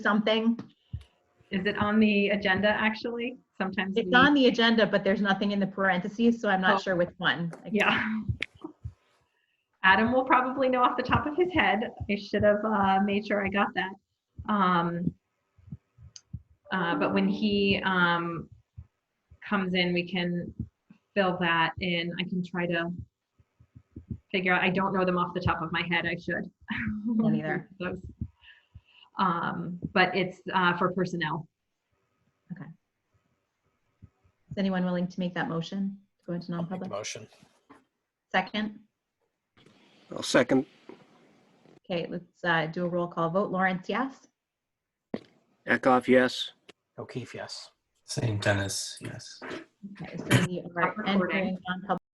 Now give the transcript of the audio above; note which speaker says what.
Speaker 1: something.
Speaker 2: Is it on the agenda, actually? Sometimes.
Speaker 1: It's
Speaker 2: we-
Speaker 1: on the agenda, but there's nothing in the parentheses, so I'm
Speaker 2: Oh.
Speaker 1: not sure which one. I
Speaker 2: Yeah. Adam will probably know off the top of his head. I should have uh, made sure I got that. Um, uh, But when he um, comes in, we can fill that in. I can try to figure out, I don't know them off the top of my head. I should.
Speaker 1: neither.
Speaker 2: Those. Um, But it's uh, for personnel.
Speaker 1: Is anyone willing to make that motion? to Go into
Speaker 3: I'll make the
Speaker 1: non-public?
Speaker 3: motion.
Speaker 1: Second?
Speaker 4: I'll second.
Speaker 1: Okay, let's uh, do a roll call vote. Lawrence, yes?
Speaker 4: Eckhoff, yes.
Speaker 3: O'Keefe, yes.
Speaker 5: St. Dennis, yes.
Speaker 1: Okay, so we are
Speaker 2: Stop recording.
Speaker 1: entering non-public